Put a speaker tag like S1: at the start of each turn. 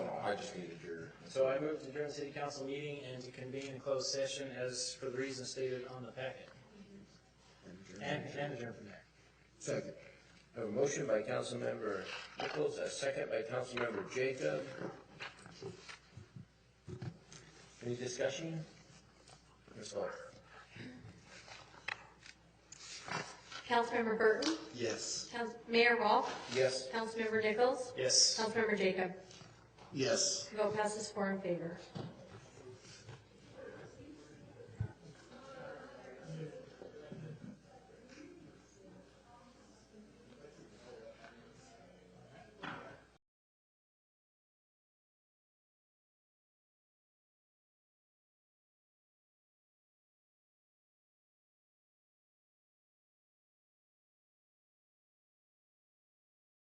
S1: Oh,
S2: I just needed your.
S3: So I move to adjourn the city council meeting and to convene in closed session as for the reasons stated on the packet. And, and adjourn from there.
S2: Second.
S1: I have a motion by Councilmember Nichols, a second by Councilmember Jacob. Any discussion? Ms. Hall?
S4: Councilmember Burton,
S2: Yes.
S4: Council, Mayor Rolfe,
S1: Yes.
S4: Councilmember Nichols,
S3: Yes.
S4: Councilmember Jacob.
S2: Yes.
S4: Vote passes four in favor.